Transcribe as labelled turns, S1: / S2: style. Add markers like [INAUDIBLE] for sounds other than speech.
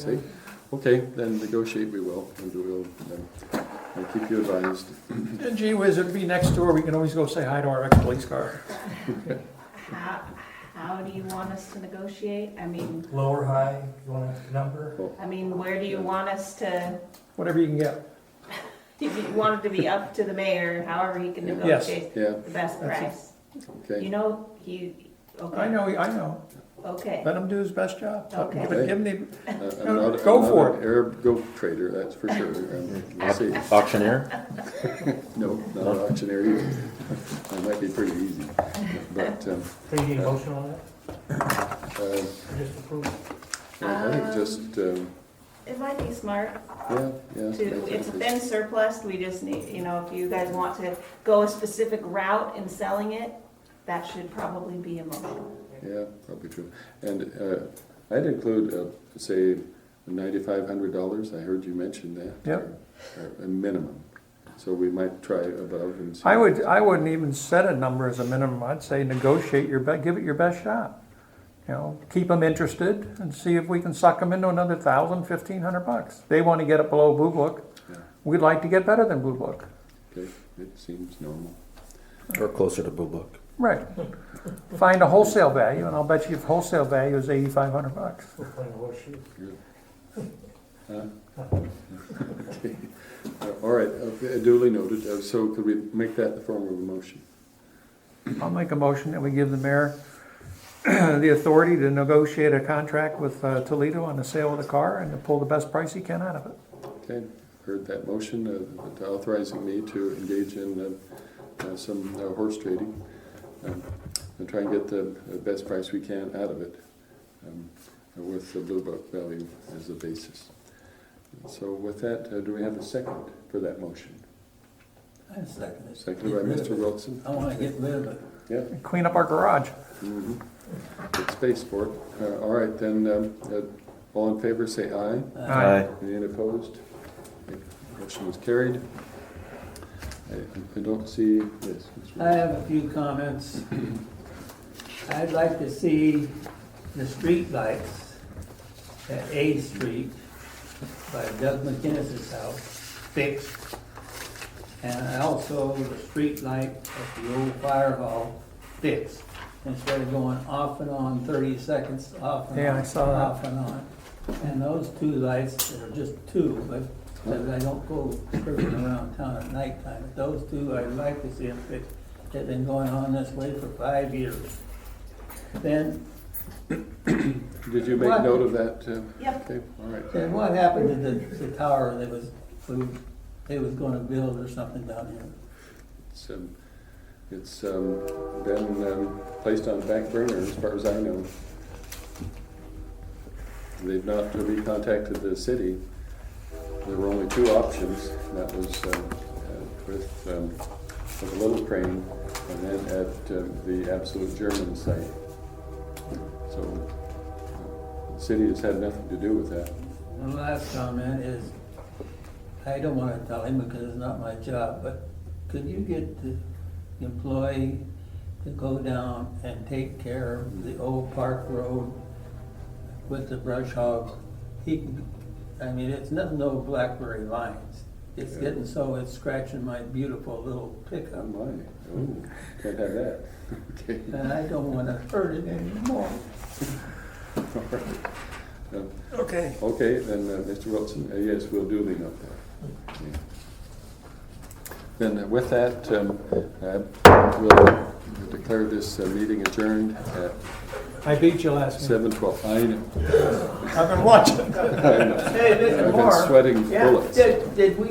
S1: See, okay, then negotiate we will, and we'll, then I'll keep you advised.
S2: And gee whiz, it'd be next door, we can always go say hi to our ex-police car.
S3: How, how do you want us to negotiate? I mean,
S4: Low or high, you want a number?
S3: I mean, where do you want us to,
S2: Whatever you can get,
S3: if you want it to be up to the mayor, however he can
S2: Yes.
S3: negotiate
S1: Yeah,
S3: the best price? You
S1: okay,
S3: know, he,
S2: I
S3: okay,
S2: know, I know,
S3: okay,
S2: let him do his best job, Let him give it- give him the,
S1: Uh, I'm not, I'm
S2: Go for
S1: not an Arab goat trader, that's for
S3: [LAUGHS]
S1: sure, Um, we'll see,
S5: Auctioneer?
S1: no, not an auctioneer either. [LAUGHS] That might be pretty easy, but, um,
S4: Do you need a motion on that?
S1: uh,
S4: Or Just approve?
S1: I think just, um,
S3: it might be smart
S1: yeah, yeah.
S3: to,
S1: I
S3: it's
S1: think
S3: been surplus, we just need, you know, if you guys want to go a specific route in selling it, that should probably be a motion.
S1: Yeah, probably true. And uh, I'd include, uh, say, ninety-five hundred dollars, I heard you mention that.
S2: Yep.
S1: Uh, A minimum, so we might try above and see.
S2: I would, I wouldn't even set a number as a minimum, I'd say negotiate your, be- give it your best shot. You know, keep them interested and see if we can suck them into another thousand, fifteen hundred bucks. They wanna get it below Blue Book,
S1: Yeah,
S2: we'd like to get better than Blue Book.
S1: Okay, it seems normal.
S5: Or closer to Blue Book.
S2: Right. Find a wholesale value, and I'll bet you if wholesale value is eighty-five hundred bucks.
S4: We're playing horseshoe.
S1: Okay. Uh, All right, uh, duly noted, Uh, so could we make that the form of a motion?
S2: I'll make a motion that we give the mayor [CLEARS THROAT] the authority to negotiate a contract with uh, Toledo on the sale of the car and to pull the best price he can out of it.
S1: Okay, heard that motion, uh, authorizing me to engage in uh, uh, some uh, horse trading um, and try and get the uh, best price we can out of it um, with the Blue Book value as a basis. So with that, uh, do we have a second for that motion?
S6: I second it.
S1: Seconded by
S6: Get rid
S1: Mr.
S6: of it.
S1: Wilson?
S6: I wanna get rid of it.
S1: Yeah,
S2: Clean up our garage.
S1: mhm. good space for it. Uh, All right, then, um, uh, all in favor, say aye.
S2: Aye.
S1: Any opposed? Motion was carried. I I don't see this.
S6: I have a few comments. [CLEARS THROAT] I'd like to see the street lights at A Street by Doug McKinnis's house fixed. And also the street light at the old fire hall fixed, instead of going off and on thirty seconds, off and on.
S2: Yeah, I saw that.
S6: Off and on. And those two lights, there are just two, but, because I don't go cruising around town at nighttime, but those two, I'd like to see them fixed. They've been going on this way for five years. Then,
S1: Did you make
S6: What?
S1: note of that? uh,
S3: Yep,
S1: Okay, all right.
S6: then what happened to the, the tower that was, we- they was gonna build or something down here?
S1: It's, um, It's um, been um, placed on the back burner as far as I know. They've not recontacted the city. There were only two options. That was um, uh, with um, with a little crane and then at um, the absolute German site. So uh, the city has had nothing to do with that.
S6: And the last comment is, I don't wanna tell him because it's not my job, but could you get the employee to go down and take care of the old park road with the brush hog? He, can- I mean, it's nothing, no blackberry lines. It's
S1: Yeah.
S6: getting so it's scratching my beautiful little pickup.
S1: Oh my, oh, can't have that. [LAUGHS] Okay.
S6: And I don't wanna hurt it anymore.
S1: All right. Um,
S2: Okay.
S1: Okay, then, uh, Mr. Wilson, uh, yes, we'll duly note that. Yeah. Then uh, with that, um, uh, we'll declare this uh, meeting adjourned at
S2: I beat you last meeting.
S1: seven twelve. I know,
S2: I've been watching.
S1: I know.
S6: [LAUGHS] Hey, Mr.
S1: I've been
S6: Moore.
S1: sweating
S6: Yeah,
S1: bullets.
S6: did, did we